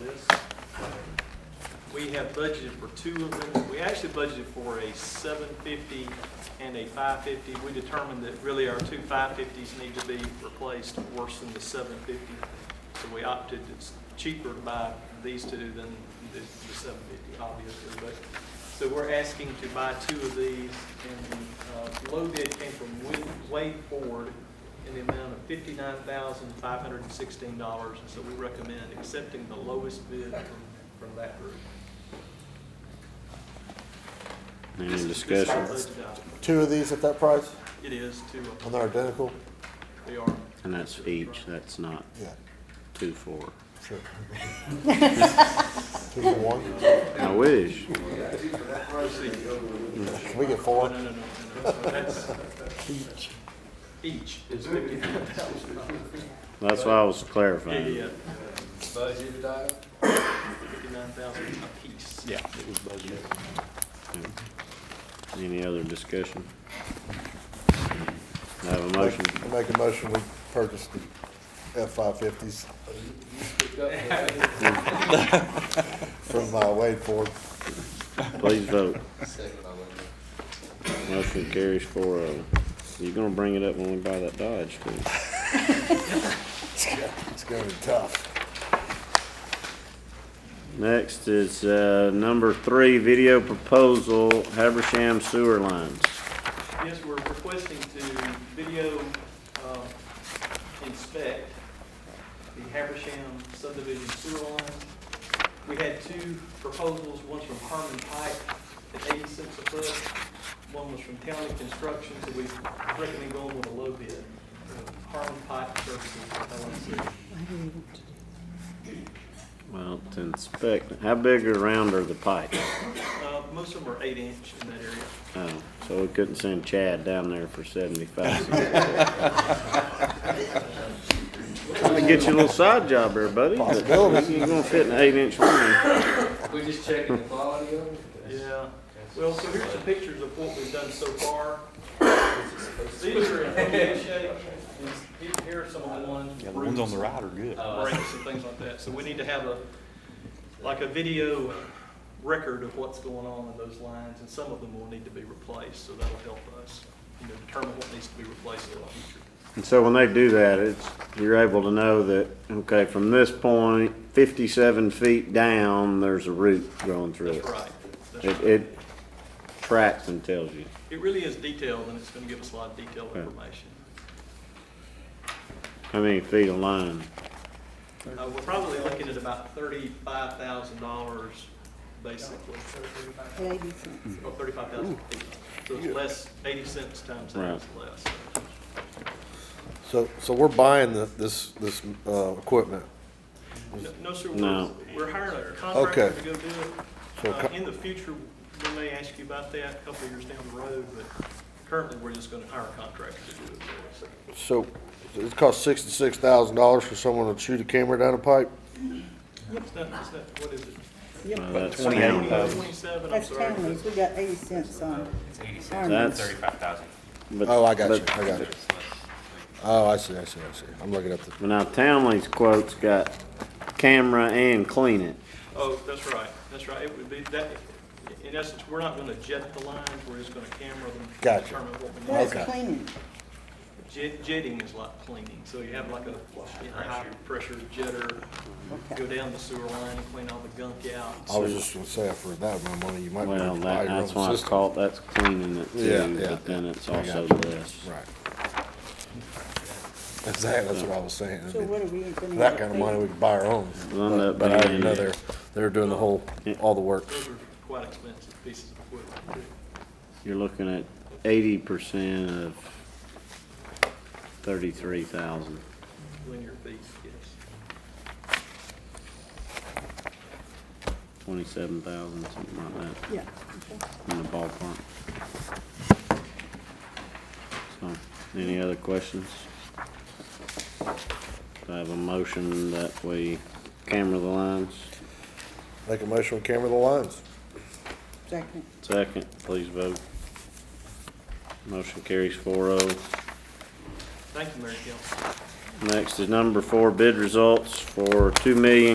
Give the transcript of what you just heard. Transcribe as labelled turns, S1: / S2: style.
S1: this. We have budgeted for two of them. We actually budgeted for a seven fifty and a five fifty. We determined that really our two five fifties need to be replaced worse than the seven fifty. So we opted, it's cheaper to buy these two than the seven fifty, obviously, but. So we're asking to buy two of these and the uh, low bid came from Wade- Wade Ford in the amount of fifty-nine thousand, five hundred and sixteen dollars. And so we recommend accepting the lowest bid from, from that group.
S2: Any
S1: This is- this is our
S2: discussion?
S1: budget item.
S3: Two of these at that price,
S1: It is to, uh,
S3: and they're identical?
S1: they are,
S2: And that's each, that's not
S3: Yeah,
S2: two, four.
S3: sure. Two for one?
S2: I wish.
S3: Can we get
S1: oh,
S3: four?
S1: no, no, no, no, no, that's. Each. Each is fifty-nine thousand dollars.
S2: That's why I was
S1: Yeah, yeah,
S2: clarifying.
S1: yeah. Fifty-nine thousand apiece.
S2: Yeah, it was budget. Any other discussion? I have a motion.
S3: I Make a motion, we purchase the F-550s from uh, Wade Ford.
S2: Please vote. Motion carries four oh. You're gonna bring it up when we buy that Dodge too.
S3: It's gonna be tough.
S2: Next is, uh, number three, video proposal, Habersham sewer lines.
S1: Yes, we're requesting to video uh, inspect the Habersham subdivision sewer line. We had two proposals, one's from Harmon Pike at eighty cents a foot, one was from County Construction, so we recommend going with a low bid. uh, Harmon Pike Services LLC.
S2: Well, to inspect, how big or round are the pipes?
S1: Uh, Most of them are eight inch in that area.
S2: Oh, so we couldn't send Chad down there for seventy-five cents. Trying to get you a little side job there, buddy.
S3: Possibility.
S2: You're gonna fit in an eight-inch line.
S4: We're just checking the quality of it?
S1: Yeah, well, so here's some pictures of what we've done so far. These are in good shape, and here- here are some of the ones. Uh,
S5: Yeah, the ones on the right are good.
S1: Breaks and things like that, so we need to have a, like a video record of what's going on in those lines, and some of them will need to be replaced, so that'll help us, you know, determine what needs to be replaced in the future.
S2: And so when they do that, it's, you're able to know that, okay, from this point, fifty-seven feet down, there's a root growing through it.
S1: That's right, that's
S2: It,
S1: right.
S2: it tracks and tells you.
S1: It really is detailed, and it's gonna give us a lot of detailed
S2: Yeah.
S1: information.
S2: How many feet of line?
S1: Uh, we're probably looking at about thirty-five thousand dollars, basically.
S6: Eighty cents.
S1: Oh, thirty-five thousand feet. So it's less, eighty cents times that is less.
S3: So, so we're buying the, this, this, uh, equipment.
S1: No- No, sir, we're,
S2: No.
S1: we're hiring a contractor
S3: Okay.
S1: to go do it.
S3: So
S1: Uh,
S3: co-
S1: in the future, we may ask you about that a couple of years down the road, but currently, we're just gonna hire a contractor to do it for us.
S3: So it costs sixty-six thousand dollars for someone to shoot a camera down a pipe?
S1: It's not, it's not, what is it?
S2: Uh,
S6: Yep,
S2: that's
S5: Twenty-eight
S2: town.
S5: thousand.
S1: Twenty-seven, I'm
S6: that's
S1: sorry.
S6: counties, we got eighty cents on.
S4: It's eighty
S6: Harmon.
S2: That's-
S4: thirty-five thousand.
S2: But-
S3: Oh, I got you,
S2: but-
S3: I got you. Oh, I see, I see, I see. I'm looking at the,
S2: Well, Now Townley's quote's got camera and clean it.
S1: Oh, that's right, that's right. It would be that, in essence, we're not gonna jet the lines, we're just gonna camera them.
S3: Gotcha.
S1: Determine what we need.
S6: That's
S3: Okay.
S6: cleaning.
S1: Jet, jetting is like cleaning, so you have like a, you know, high-pressure jetter, go
S6: Okay.
S1: down the sewer line and clean all the gunk out.
S3: I was just gonna say, I've heard that one, money, you might. be able to
S2: Well,
S3: buy
S2: that,
S3: your own
S2: that's why it's
S3: system.
S2: called, that's cleaning it
S3: Yeah,
S2: too,
S3: yeah,
S2: but then
S3: yeah.
S2: it's
S3: I
S2: also
S3: got
S2: this.
S3: Right. Exactly, that's what I was saying. I
S6: So
S3: mean,
S6: what are we gonna?
S3: for That kind of money, we could buy our own.
S2: We'll end up
S3: But I
S2: buying-
S3: didn't know they're, they're doing the whole, all the work.
S1: Those are quite expensive pieces of equipment.
S2: You're looking at eighty percent of thirty-three thousand.
S1: too. Linear feet, yes.
S2: Twenty-seven thousand, something like
S6: Yeah.
S2: that, in the ballpark. So, any other questions? Do I have a motion that we camera the lines.
S3: Make a motion, we camera the lines.
S6: Second,
S2: Second, please vote. Motion carries four oh.
S1: Thank you, Mary Kay.
S2: Next is number four, bid results for two million